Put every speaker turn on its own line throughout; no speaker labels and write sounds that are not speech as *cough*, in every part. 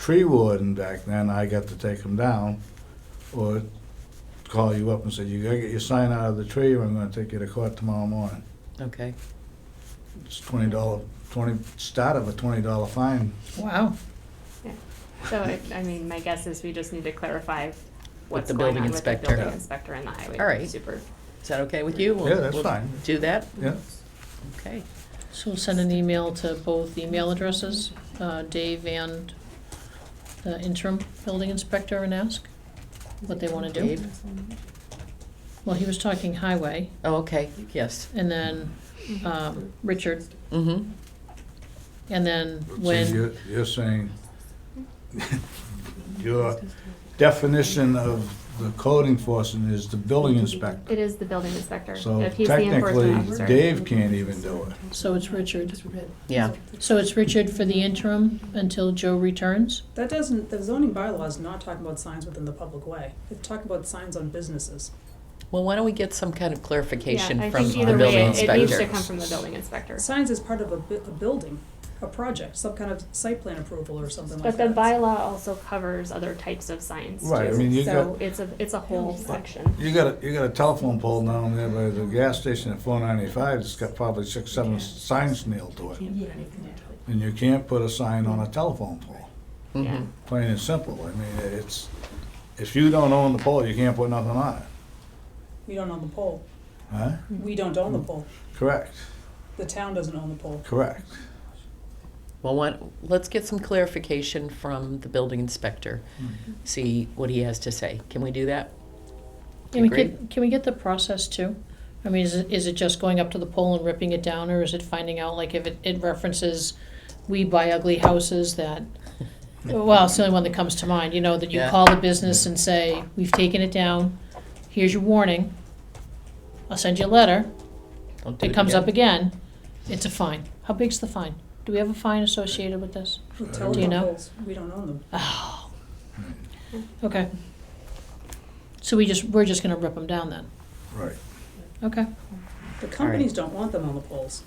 tree warden back then, I got to take them down or call you up and say, you gotta get your sign out of the tree or I'm gonna take you to court tomorrow morning.
Okay.
It's twenty dollar, twenty, start of a twenty dollar fine.
Wow.
So, I, I mean, my guess is we just need to clarify what's
the
going
building
on with the
inspector.
building
Yeah.
inspector and the
All
highway
right.
super.
Is that okay with you? We'll-
Yeah, that's
we'll
fine.
Do that?
Yeah,
Okay.
So we'll send an email to both email addresses, uh, Dave and the interim building inspector and ask what they wanna do.
Dave?
Well, he was talking highway,
Oh, okay, yes.
and then,
Uh,
um, Richard,
Mm-hmm.
and then
So
when,
you're- You're saying, your definition of the code enforcement is the building inspector.
It is the building inspector.
So
If he's the enforcement
technically,
officer.
Dave can't even do it.
so it's Richard.
Yeah.
So it's Richard for the interim until Joe returns?
That doesn't, the zoning bylaw is not talking about signs within the public way. It's talking about signs on businesses.
Well, why don't we get some kind of clarification
Yeah, I
from
think
the
either way,
building
it- It needs to
inspector?
come from the building inspector.
Signs is part of a, bu- a building, a project, some kind of site plan approval or something like
But the
that.
bylaw also covers other types of signs too.
Right, I mean, you
So
got-
it's a, it's a whole section.
You got a, you got a telephone pole down there by the gas station at four ninety-five, it's got probably six, seven signs nailed to it. And you can't put a sign on a telephone pole,
Yeah.
Mhm.
plain and simple. I mean, it's, if you don't own the pole, you can't put nothing on it,
We don't own the pole.
huh?
We don't own the pole.
Correct,
The town doesn't own the pole.
correct.
Well, why- let's get some clarification from the building inspector,
Mm-hmm.
see what he has to say. Can we do that?
Can we get, can we get the process too? I mean, is it, is it just going up to the pole and ripping it down, or is it finding out, like, if it, it references, we buy ugly houses *laughs* that, well, it's the only one that comes to mind, you know, that you
Yeah.
call the business and say, we've taken it down, here's your warning, I'll send you a letter,
Don't do
it comes up again, it's a fine. How big's the fine? Do we have a fine associated with this?
The
Do
telephone
you know?
poles, We don't own them.
Oh, okay. So we just, we're just gonna rip them down then,
Right.
okay?
The companies don't want them on the poles.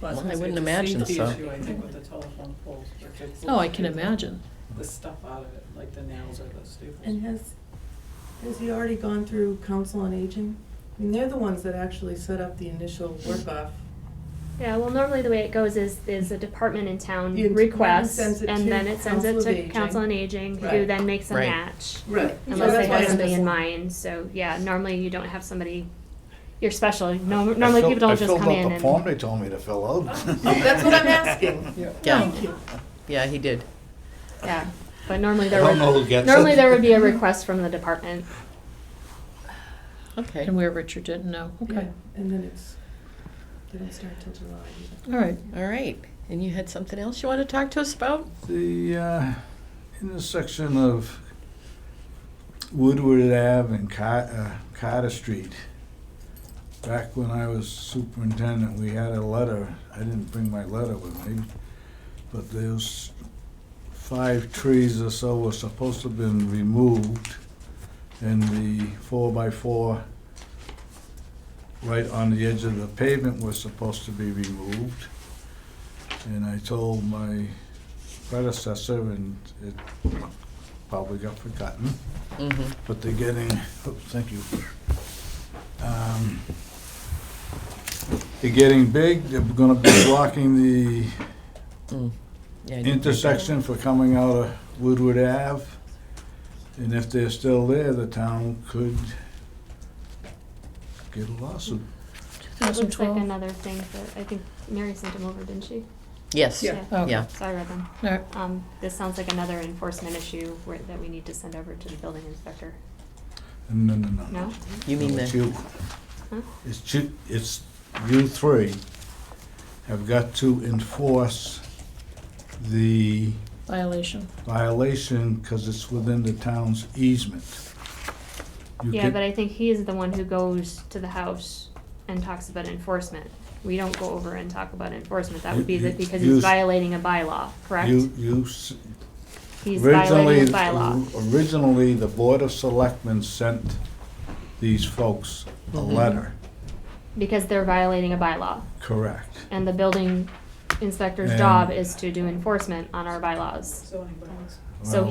But
Well, I wouldn't imagine
It's a
so.
safety issue, I think, with the telephone poles. if it's-
Oh, I can imagine.
The stuff out of it, like the nails or the staples.
And has, has he already gone through council on aging? I mean, they're the ones that actually set up the initial work-off.
Yeah, well, normally the way it goes is, is a department in town
The department
requests,
sends it
and
to
then it sends it
Council of
to
Aging.
Council on Aging, who
Right.
then makes a
Right.
match.
Right.
Unless they have something in mind, so, yeah, normally you don't have somebody, you're special, No- normally
I
people don't
filled-
just come
I
in
filled out the form
and.
they told me to fill out.
Oh, That's what I'm
*laughs*
asking.
Yeah,
Thank you.
yeah, he did.
Yeah, but normally
I
there
don't know
would,
who gets it.
normally there would be a request from the department.
Okay.
And where Richard didn't know, okay,
Yeah, And then it's, they don't start till July either.
all right.
All right. And you had something else you want to talk to us about?
The uh, intersection of Woodward Ave and Car- uh, Carter Street. Back when I was superintendent, we had a letter. I didn't bring my letter with me, but those five trees or so were supposed to have been removed, and the four by four right on the edge of the pavement was supposed to be removed. And I told my predecessor, and it probably got forgotten,
Mm-hmm.
but they're getting, oops, thank you. Um, They're getting big, they're gonna be blocking the
Mm.
intersection for coming out of Woodward Ave. And if they're still there, the town could get a lawsuit.
It looks like
2012.
another thing that, I think Mary sent them over, didn't she?
Yes,
Yeah.
Okay.
yeah.
So I read them.
Oh, All right.
Um, this sounds like another enforcement issue where, that we need to send over to the building inspector,
No, no, no.
no?
You mean
No, it's
the,
you.
Huh?
It's you, it's you three have got to enforce the
Violation.
violation because it's within the town's easement. You
Yeah,
can-
but I think he is the one who goes to the house and talks about enforcement. We don't go over and talk about enforcement, that would be the-
You- you-
because
you-
he's violating a bylaw, correct?
You, you, s-
He's
originally,
violating a bylaw.
originally, the Board of Selectmen sent these folks a
Mm-hmm.
Mhm.
letter,
Because they're violating a bylaw,
correct?
and the building inspector's
And-
job is to do enforcement on our bylaws.
Zoning bylaws.
So
Wow.